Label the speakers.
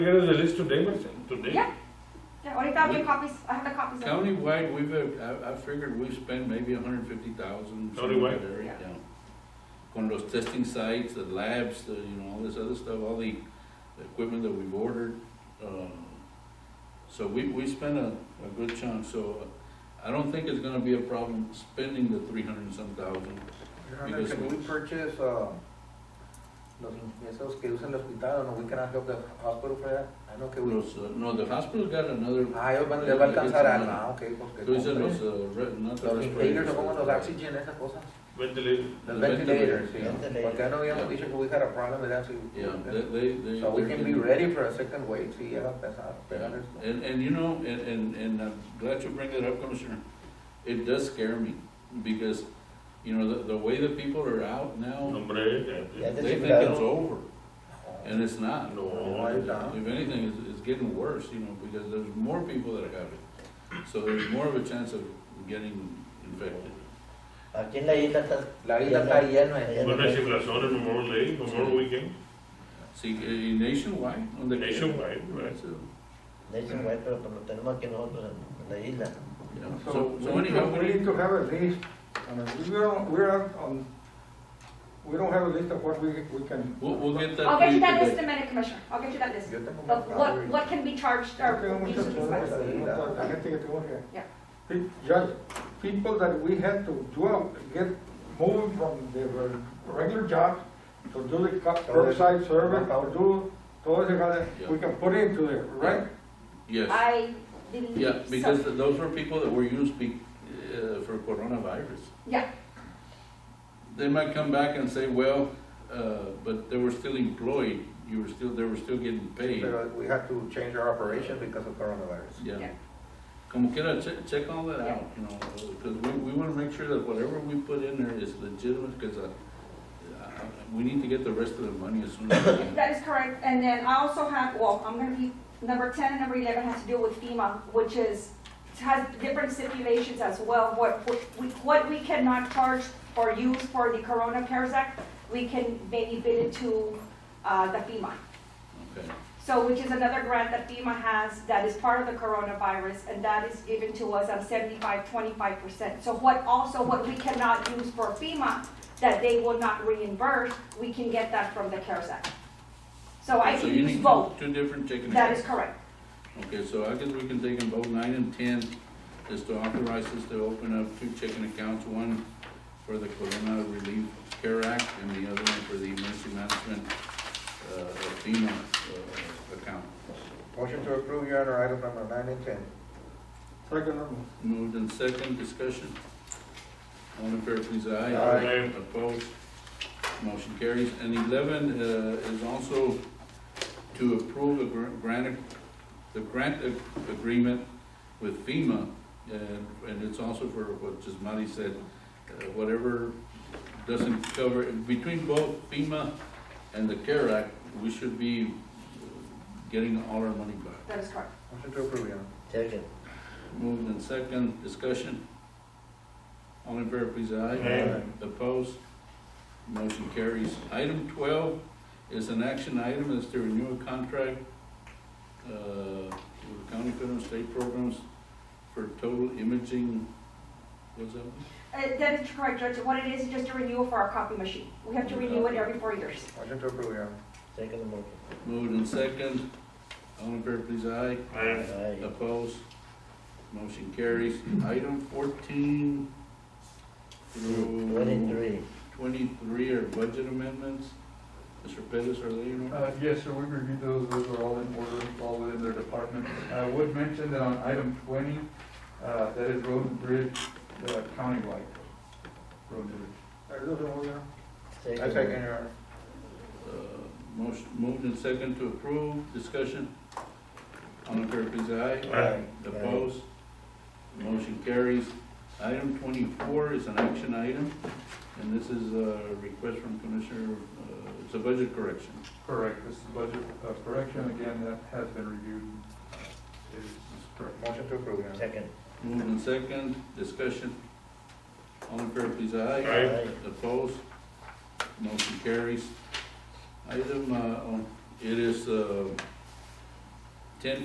Speaker 1: Here is the list today, but today?
Speaker 2: Yeah. Yeah, ahorita había copies, I have the copies. of it.
Speaker 3: Countywide, we've, uh, I, I figured we spend maybe a hundred fifty thousand.
Speaker 1: Countywide?
Speaker 3: On those testing sites, the labs, the, you know, all this other stuff, all the equipment that we've ordered, um, so we, we spent a, a good chunk, so uh, I don't think it's gonna be a problem spending the three hundred and some thousand.
Speaker 4: Your Honor, can we purchase, uh, los ingresos que usa el hospital, no, we cannot help the hospital for that? I know Ah, que we,
Speaker 3: Los, uh, no, the hospital got another.
Speaker 4: ah, ellos van, les va a alcanzar algo, ah, ok, porque.
Speaker 3: Tú dices
Speaker 4: compre.
Speaker 3: los, uh, re- not the
Speaker 4: Los inhalers,
Speaker 3: respirators.
Speaker 4: o como los oxygen, esas cosas,
Speaker 1: Ventilation.
Speaker 3: The
Speaker 4: los ventilators,
Speaker 3: ventilators,
Speaker 4: sí,
Speaker 5: yeah.
Speaker 4: porque I know we have
Speaker 3: Yeah.
Speaker 4: a issue, we had a problem with that, so.
Speaker 3: Yeah, they, they. they-
Speaker 4: So we
Speaker 3: they're
Speaker 4: can be
Speaker 3: getting-
Speaker 4: ready for a second wave, si llega a pasar, pero
Speaker 3: Yeah,
Speaker 4: there's no-
Speaker 3: And, and you know, and, and, and I'm glad you bring that up, Commissioner, it does scare me, because, you know, the, the way that people are out now,
Speaker 1: Nombre, yeah,
Speaker 5: Yeah,
Speaker 3: they
Speaker 5: this
Speaker 3: think
Speaker 5: is
Speaker 3: it's
Speaker 5: better.
Speaker 3: over, and it's not.
Speaker 1: No.
Speaker 4: Why not?
Speaker 3: If anything, it's, it's getting worse, you know, because there's more people that have it, so there's more of a chance of getting infected.
Speaker 5: Aquí en la isla está.
Speaker 4: La isla está llena de
Speaker 1: Con la
Speaker 5: gente.
Speaker 1: circulación en Memorial Day, Memorial Weekend,
Speaker 3: See, eh, nationwide, on the.
Speaker 1: nationwide, right?
Speaker 3: That's it.
Speaker 5: De hecho, güey, pero lo tenemos aquí nosotros en- en la isla.
Speaker 3: Yeah,
Speaker 6: So
Speaker 3: so,
Speaker 6: we
Speaker 3: so
Speaker 6: need to,
Speaker 3: anyhow,
Speaker 6: we need to have a list, I mean, we don't, we're not on, we don't have a list of what we, we can.
Speaker 3: we'll, we'll get that.
Speaker 2: I'll get you
Speaker 3: for
Speaker 2: that
Speaker 3: today.
Speaker 2: list in a minute, Commissioner, I'll get you that list.
Speaker 4: Yo tengo
Speaker 2: But
Speaker 4: más
Speaker 2: what,
Speaker 4: tarde.
Speaker 2: what can be charged
Speaker 6: Yo
Speaker 2: or
Speaker 6: tengo
Speaker 2: used
Speaker 6: muchas
Speaker 2: to be
Speaker 6: cosas,
Speaker 2: charged?
Speaker 6: la- la gente que tengo here.
Speaker 2: Yeah.
Speaker 6: Pe- Judge, people that we had to do, get moved from their regular jobs to do the cu- curbside service, to do, todo ese kind of- we can put into the right?
Speaker 3: Yes.
Speaker 2: I believe so.
Speaker 3: Yeah, because th- those were people that were used be, uh, for coronavirus.
Speaker 2: Yeah.
Speaker 3: They might come back and say, well, uh, but they were still employed, you were still, they were still getting paid.
Speaker 4: But we have to change our operation because of coronavirus.
Speaker 3: Yeah.
Speaker 2: Yeah.
Speaker 3: Como quiera, check, check all that out, you know, because we, we wanna make sure that whatever we put in there is legitimate, because, uh, uh, we need to get the rest of the money as soon as we can.
Speaker 2: That is correct, and then I also have, well, I'm gonna be, number ten and number eleven has to do with FEMA, which is, has different stipulations as well, what, what we, what we cannot charge or use for the Corona CARES Act, we can maybe bid it to, uh, the FEMA.
Speaker 3: Okay,
Speaker 2: So, which is another grant that FEMA has that is part of the coronavirus, and that is given to us on 75, 25 percent. So what, also what we cannot use for FEMA, that they will not reimburse, we can get that from the CARES Act. So I
Speaker 3: so
Speaker 2: can
Speaker 3: you
Speaker 2: use
Speaker 3: need
Speaker 2: both,
Speaker 3: two, two different checking accounts.
Speaker 2: that is correct.
Speaker 3: Okay, so I guess we can take in vote nine and ten, is to authorize us to open up two checking accounts, one for the Corona Relief Care Act, and the other one for the Emergency Management, uh, FEMA, uh, account.
Speaker 4: Motion to approve, Your Honor, item number nine and ten.
Speaker 6: Second, um,
Speaker 3: Moved in second, discussion. All in favor, please, aye.
Speaker 4: Aye.
Speaker 3: Opposed, motion carries. And eleven, uh, is also to approve the gr- grant, the grant ag- agreement with FEMA, and, and it's also for what Jismati said, uh, whatever doesn't cover, between both FEMA and the CARE Act, we should be uh, getting all our money back.
Speaker 2: That is correct.
Speaker 4: Motion to approve, Your Honor.
Speaker 5: Second.
Speaker 3: Moved and second, discussion. All in favor, please, aye.
Speaker 1: Aye.
Speaker 3: Opposed? Motion carries. Item twelve is an action item, is to renew a contract, uh, with the county federal and state programs for total imaging, what's that? one?
Speaker 2: Uh, That is correct, Judge, what it is, is just a renewal for our copy machine. We have to renew it every four years.
Speaker 4: Motion to approve, Your Honor.
Speaker 5: Second motion.
Speaker 3: Moved and second, all in favor, please, aye.
Speaker 1: And
Speaker 5: Aye.
Speaker 3: Opposed? Motion carries. Item fourteen through.
Speaker 5: Twenty-three.
Speaker 3: Twenty-three are budget amendments. Mr. Pettis, are they in order?
Speaker 7: Uh, Yes, sir, we reviewed those, those are all in order, all within their department. I would mention that on item twenty, uh, that is road and bridge, uh, countywide, road and bridge.
Speaker 6: I don't know, yeah.
Speaker 4: I
Speaker 5: Second.
Speaker 4: second, Your Honor.
Speaker 3: Uh, Motion, moved and second to approve, discussion. All in favor, please, aye.
Speaker 1: Aye.
Speaker 3: Opposed? Motion carries. Item twenty-four is an action item, and this is a request from Commissioner, uh, it's a budget correction.
Speaker 7: Correct, this is budget uh, correction, again, that has been reviewed, uh, is is correct.
Speaker 4: Motion to approve, Your Honor.
Speaker 5: Second.
Speaker 3: Moved and second, discussion. All in favor, please, aye.
Speaker 1: Aye.
Speaker 3: Opposed? Motion carries. Item, uh, on- it is, uh,